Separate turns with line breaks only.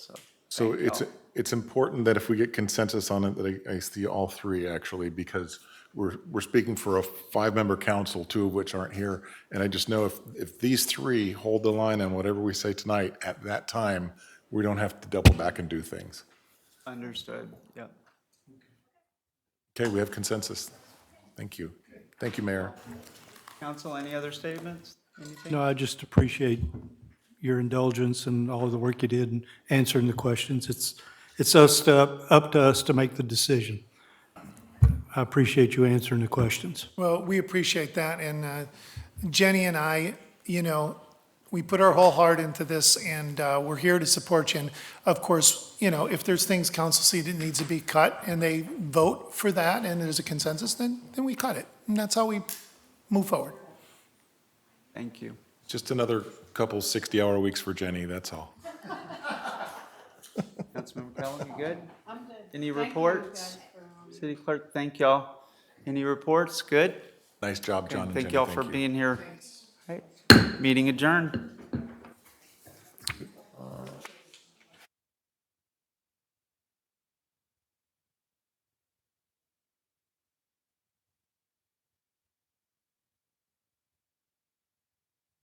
So it's, it's important that if we get consensus on it, that I, I see all three actually, because we're, we're speaking for a five-member council, two of which aren't here. And I just know if, if these three hold the line on whatever we say tonight, at that time, we don't have to double back and do things.
Understood, yeah.
Okay, we have consensus. Thank you. Thank you, Mayor.
Council, any other statements? Anything?
No, I just appreciate your indulgence and all of the work you did in answering the questions. It's, it's us to, up to us to make the decision. I appreciate you answering the questions.
Well, we appreciate that, and uh, Jenny and I, you know, we put our whole heart into this, and uh, we're here to support you. And of course, you know, if there's things council see that needs to be cut, and they vote for that, and there's a consensus, then, then we cut it. And that's how we move forward.
Thank you.
Just another couple 60-hour weeks for Jenny, that's all.
Councilmember Cullen, you good? I'm good. Any reports? City clerk, thank y'all. Any reports? Good?
Nice job, John and
Thank
Jenny.
y'all for being here. All right. Meeting adjourned.